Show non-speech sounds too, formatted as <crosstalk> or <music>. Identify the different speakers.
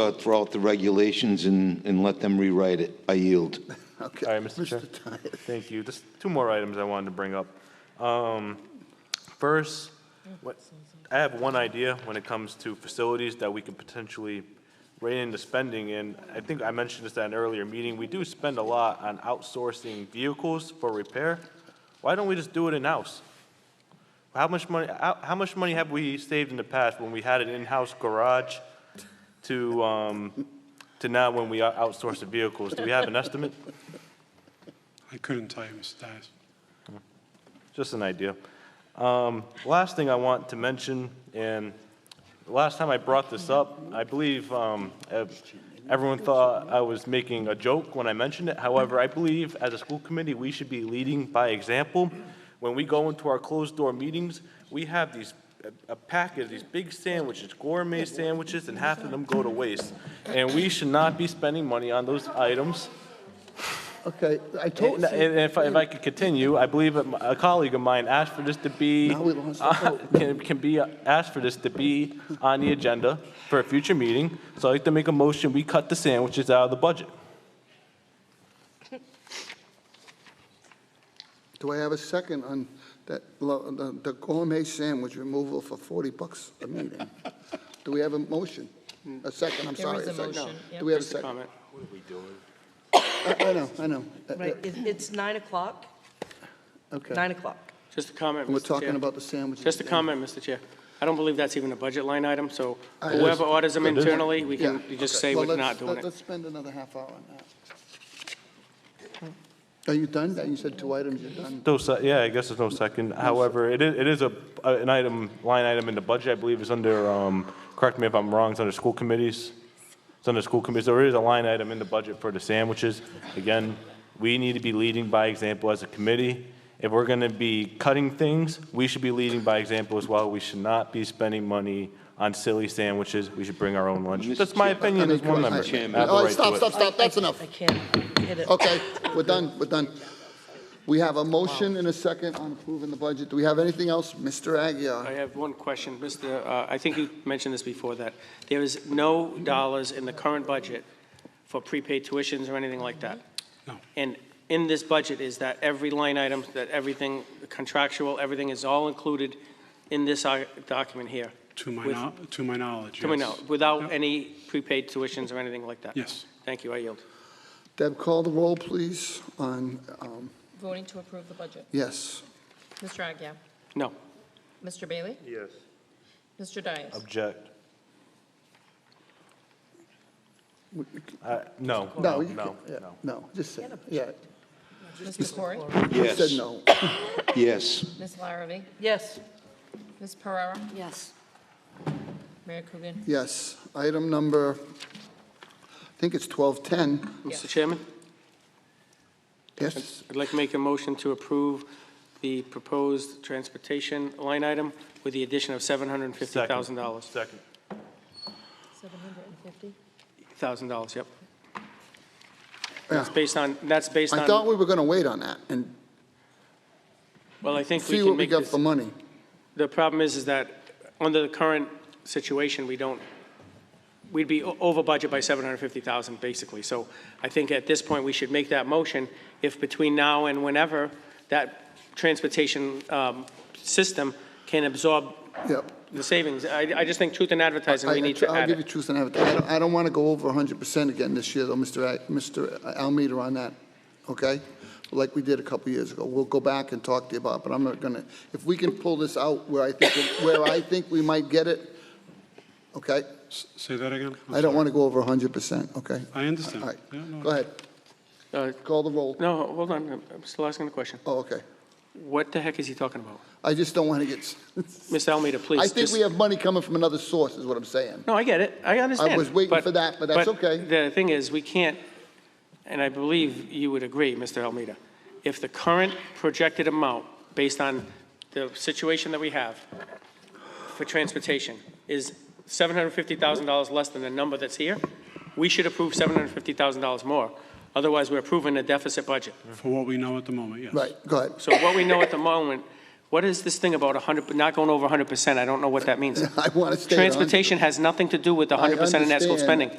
Speaker 1: uh, throw out the regulations and, and let them rewrite it. I yield.
Speaker 2: Okay.
Speaker 3: All right, Mr. Chair.
Speaker 2: Tyler.
Speaker 3: <laughs> Thank you. Just two more items I wanted to bring up. Um, First, what- I have one idea when it comes to facilities that we could potentially rein into spending, and I think I mentioned this at an earlier meeting. We do spend a lot on outsourcing vehicles for repair. Why don't we just do it in-house? How much money, how, how much money have we saved in the past when we had an in-house garage to, um, to now when we out- outsource the vehicles? Do we have an estimate?
Speaker 4: I couldn't tell you, Mr. Dias.
Speaker 3: just an idea. Um, Last thing I want to mention, and the last time I brought this up, I believe um, ev- everyone thought I was making a joke when I mentioned it. However, I believe as a school committee, we should be leading by example. When we go into our closed-door meetings, we have these, a- a packet of these big sandwiches, gourmet sandwiches, and half of them go to waste. And we should not be spending money on those items.
Speaker 2: Okay, I told
Speaker 3: And
Speaker 2: you.
Speaker 3: and if, I- if I could continue, I believe that my- a colleague of mine asked for this to be,
Speaker 2: Now we lost the
Speaker 3: uh, <laughs> can, can be, uh, asked for this to be on the agenda for a future meeting. So I'd like to make a motion, we cut the sandwiches out of the budget.
Speaker 2: Do I have a second on that, lo- the the gourmet sandwich removal for 40 bucks a meeting? Do we have a motion? A second, I'm
Speaker 5: There
Speaker 2: sorry.
Speaker 5: is a
Speaker 2: second. No.
Speaker 5: motion, yeah.
Speaker 2: Do we have a second? What are we doing? I know, I know. Uh,
Speaker 5: Right, it- it's nine o'clock,
Speaker 2: Okay.
Speaker 5: nine o'clock.
Speaker 6: Just a comment, Mr.
Speaker 2: And we're
Speaker 6: Chair.
Speaker 2: talking about the sandwiches.
Speaker 6: Just a comment, Mr. Chair. I don't believe that's even a budget line item, so
Speaker 2: I-
Speaker 6: whoever orders them internally, we
Speaker 2: Yeah.
Speaker 6: can just
Speaker 2: okay.
Speaker 6: say
Speaker 2: Well,
Speaker 6: we're
Speaker 2: let's-
Speaker 6: not doing
Speaker 2: let-
Speaker 6: it.
Speaker 2: Let's spend another half hour on that. Are you done? You said two items, you're done?
Speaker 3: No, se- yeah, I guess there's no second. However, it is, it is a, a- an item, line item in the budget, I believe is under, um, correct me if I'm wrong, it's under school committees. It's under school committees. There is a line item in the budget for the sandwiches. Again, we need to be leading by example as a committee. If we're gonna be cutting things, we should be leading by example as well. We should not be spending money on silly sandwiches. We should bring our own lunch.
Speaker 1: Mr.
Speaker 3: That's my
Speaker 1: Chair-
Speaker 3: opinion as one
Speaker 2: I-
Speaker 3: member. I have the
Speaker 2: All right,
Speaker 3: right to
Speaker 2: Oh, stop,
Speaker 3: it.
Speaker 2: stop, stop, that's
Speaker 5: I-
Speaker 2: enough.
Speaker 5: I can't hit it.
Speaker 2: Okay, we're done, we're done. We have a motion and a second on approving the budget. Do we have anything else, Mr.
Speaker 6: I
Speaker 2: Aguirre?
Speaker 6: have one question, Mr., uh, I think you mentioned this before, that there is no dollars in the current budget for prepaid tuitions or anything like that.
Speaker 4: No.
Speaker 6: And in this budget is that every line item, that everything contractual, everything is all included in this uh, document here,
Speaker 4: To my,
Speaker 6: With-
Speaker 4: knowl- to my knowledge, yes.
Speaker 6: coming out, without
Speaker 4: Yep.
Speaker 6: any prepaid tuitions or anything like that?
Speaker 4: Yes.
Speaker 6: Thank you, I yield.
Speaker 2: Deb, call the roll, please, on, um,
Speaker 5: Voting to approve the budget.
Speaker 2: yes.
Speaker 5: Mr. Agia?
Speaker 6: No.
Speaker 5: Mr. Bailey? Yes. Mr. Dias?
Speaker 3: Object.
Speaker 2: We-
Speaker 3: Uh, no,
Speaker 2: No,
Speaker 3: no,
Speaker 2: you
Speaker 3: no,
Speaker 2: can- yeah,
Speaker 3: no.
Speaker 2: no, just say, yeah,
Speaker 5: Mr. Corey?
Speaker 2: you said
Speaker 1: Yes,
Speaker 2: no.
Speaker 1: yes.
Speaker 5: Ms. Larrabee?
Speaker 7: Yes.
Speaker 5: Ms. Pereira?
Speaker 7: Yes.
Speaker 5: Mayor Coogan?
Speaker 2: Yes, item number, I think it's 1210,
Speaker 6: Mr. Chairman?
Speaker 2: yes,
Speaker 6: I'd like to make a motion to approve the proposed transportation line item with the addition of $750,000.
Speaker 3: Second.
Speaker 5: Seven hundred and fifty?
Speaker 6: $1,000, yep.
Speaker 2: yeah.
Speaker 6: That's based on, that's based
Speaker 2: I thought
Speaker 6: on,
Speaker 2: we were going to wait on that and
Speaker 6: well, I think we
Speaker 2: see
Speaker 6: can
Speaker 2: what we
Speaker 6: make
Speaker 2: got
Speaker 6: this.
Speaker 2: for money.
Speaker 6: The problem is, is that under the current situation, we don't, we'd be o- over budget by 750,000, basically. So I think at this point, we should make that motion. If between now and whenever, that transportation um, system can absorb
Speaker 2: Yep.
Speaker 6: the savings. I, I just think truth in advertising,
Speaker 2: I-
Speaker 6: we need to
Speaker 2: I'll
Speaker 6: add
Speaker 2: give you
Speaker 6: it.
Speaker 2: truth and advertising. I don't want to go over 100% again this year, though, Mr. Ag- Mr. Almeida on that, okay? Like we did a couple years ago. We'll go back and talk to you about, it, but I'm not going to, if we can pull this out where I think, where I think we might get it, okay?
Speaker 4: S- Say that again? I'm
Speaker 2: I don't
Speaker 4: sorry.
Speaker 2: want to go over 100%, okay?
Speaker 4: I understand.
Speaker 2: All right,
Speaker 4: Yeah, no,
Speaker 2: go ahead,
Speaker 6: Uh,
Speaker 2: call the roll.
Speaker 6: No, hold on, I'm- I'm still asking the question.
Speaker 2: Oh, okay.
Speaker 6: What the heck is he talking about?
Speaker 2: I just don't want to get,
Speaker 6: Ms. Almeida, please.
Speaker 2: I think
Speaker 6: just-
Speaker 2: we have money coming from another source, is what I'm saying.
Speaker 6: No, I get it, I understand.
Speaker 2: was waiting for that, but that's okay.
Speaker 6: The thing is, we can't, and I believe you would agree, Mr. Almeida, if the current projected amount, based on the situation that we have for transportation, is $750,000 less than the number that's here, we should approve $750,000 more. Otherwise, we're approving a deficit budget.
Speaker 4: For what we know at the moment, yes.
Speaker 2: Right, go ahead.
Speaker 6: So what we know at the moment, what is this thing about 100, not going over 100%? I don't know what that means.
Speaker 2: <laughs> I want to stay on.
Speaker 6: Transportation has nothing to do with the 100% of net school
Speaker 2: understand.
Speaker 6: spending.